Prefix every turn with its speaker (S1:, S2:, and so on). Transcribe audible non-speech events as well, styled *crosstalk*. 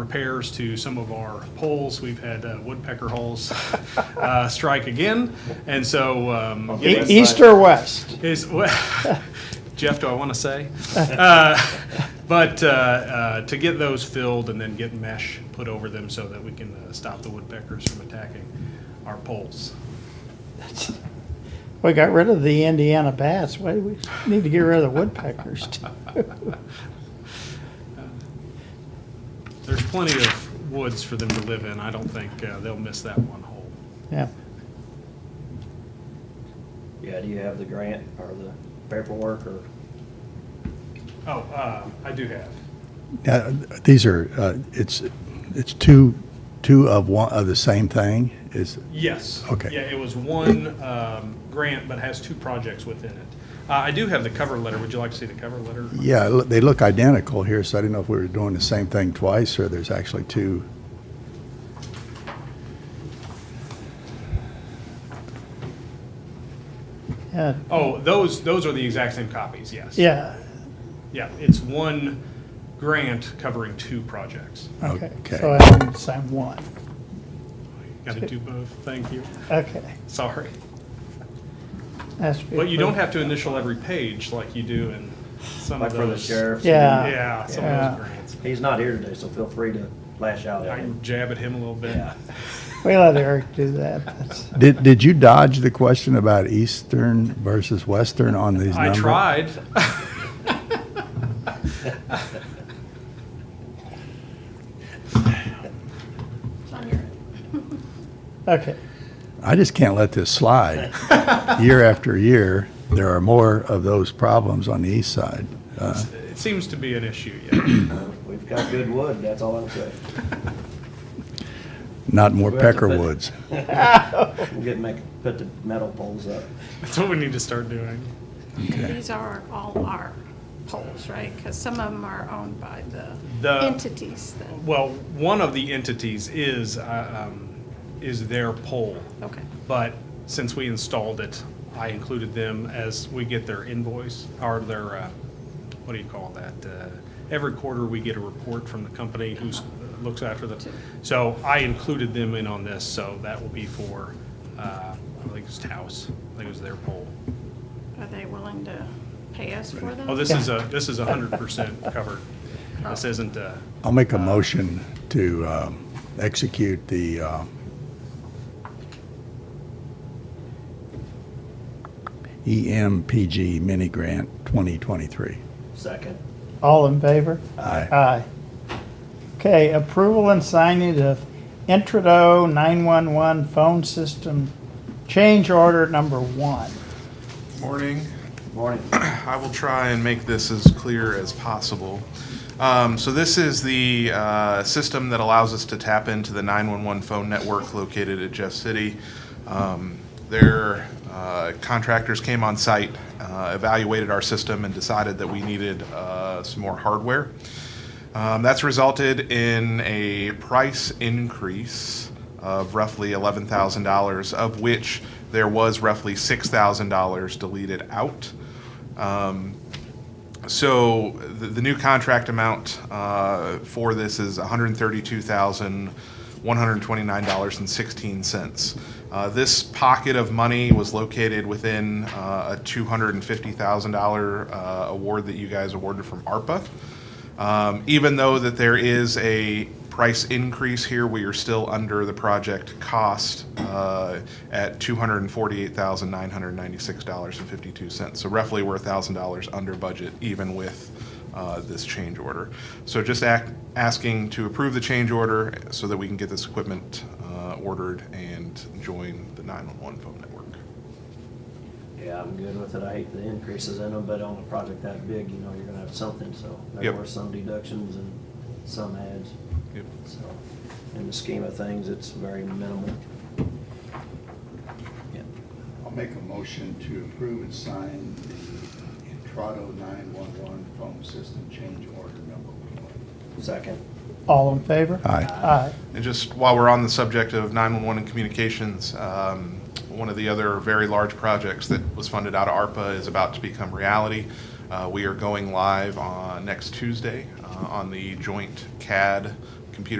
S1: repairs to some of our poles. We've had uh, woodpecker holes uh, strike again, and so. um, you
S2: E-
S1: know,
S2: East or west?
S1: is, *laughs* Jeff, do I want to say? Uh, But uh, uh, to get those filled and then get mesh put over them so that we can uh, stop the woodpeckers from attacking our poles.
S2: We got rid of the Indiana bats. Why do we need to get rid of the
S1: *laughs*
S2: woodpeckers? too?
S1: There's plenty of woods for them to live in. I don't think uh, they'll miss that one hole.
S2: Yeah.
S3: Yeah, do you have the grant or the paperwork or?
S1: Oh, uh, I do have.
S4: Uh, These are, uh, it's, it's two, two of one, of the same thing, is,
S1: Yes.
S4: Okay.
S1: Yeah, it was one um, grant, but has two projects within it. Uh, I do have the cover letter. Would you like to see the cover letter?
S4: yeah, it loo- they look identical here, so I didn't know if we were doing the same thing twice, or there's actually two.
S2: Yeah.
S1: Oh, those, those are the exact same copies, yes.
S2: Yeah.
S1: Yeah, it's one grant covering two projects.
S2: Okay.
S4: Okay.
S2: So I'm, so I'm one.
S1: Got to do both, thank you,
S2: Okay.
S1: sorry.
S2: That's
S1: But you don't have to initial every page like you do in some
S3: Like
S1: of
S3: for the
S1: those.
S3: sheriff's?
S2: Yeah.
S1: Yeah, some
S2: Yeah.
S1: of those grants.
S3: He's not here today, so feel free to lash out
S1: I
S3: at him.
S1: can jab at him a little bit.
S3: Yeah.
S2: We let Eric do that. That's-
S4: Did, did you dodge the question about Eastern versus Western on these
S1: I
S4: numbers?
S1: tried.
S2: Okay.
S4: I just can't let this
S1: *laughs*
S4: slide. Year after year, there are more of those problems on the east side. Uh,
S1: *laughs* It seems to be an issue, yeah.
S3: We've got good wood, that's all I'm saying.
S4: Not more
S3: We have to put-
S4: peckerwoods.
S3: We'll get, make, put the metal poles up.
S1: That's what we need to start doing.
S5: These are all our poles, right? Because some of them are owned by
S1: The-
S5: the entities that,
S1: Well, one of the entities is, uh, um, is their pole.
S5: okay.
S1: But since we installed it, I included them as we get their invoice, or their, uh, what do you call that? Uh, Every quarter, we get a report from the company who looks after the, so I included them in on this, so that will be for, uh, I think it's Taos, I think it was their poll.
S5: Are they willing to pay us for them?
S1: Oh, this is a, this is a hundred percent covered. This isn't, uh,
S4: I'll make a motion to um, execute the uh, E EMPG mini grant 2023.
S3: Second.
S2: All in favor?
S4: Aye.
S2: Aye. Okay, approval and signing of Intrado 911 phone system change order number one.
S6: Morning.
S3: Morning.
S6: *clears throat* I will try and make this as clear as possible. Um, So this is the uh, system that allows us to tap into the 911 phone network located at Jeff City. Um, Their uh, contractors came on site, uh, evaluated our system, and decided that we needed uh, some more hardware. Um, That's resulted in a price increase of roughly $11,000, of which there was roughly $6,000 deleted out. Um, So the the new contract amount uh, for this is $132,129.16. Uh, This pocket of money was located within uh, a $250,000 uh, award that you guys awarded from ARPA. Um, Even though that there is a price increase here, we are still under the project cost uh, at $248,996.52. So roughly we're $1,000 under budget even with uh, this change order. So just act- asking to approve the change order so that we can get this equipment uh, ordered and join the 911 phone network.
S3: Yeah, I'm good with it. I hate the increases in them, but on a project that big, you know, you're gonna have something, so there
S6: Yep.
S3: were some deductions and some adds.
S6: Yep.
S3: So, in the scheme of things, it's very minimal. Yeah.
S4: I'll make a motion to approve and sign the Intrado 911 phone system change order number one.
S3: Second.
S2: All in favor?
S4: Aye.
S2: Aye.
S6: And just while we're on the subject of 911 and communications, um, one of the other very large projects that was funded out of ARPA is about to become reality. Uh, We are going live on next Tuesday uh, on the joint CAD computer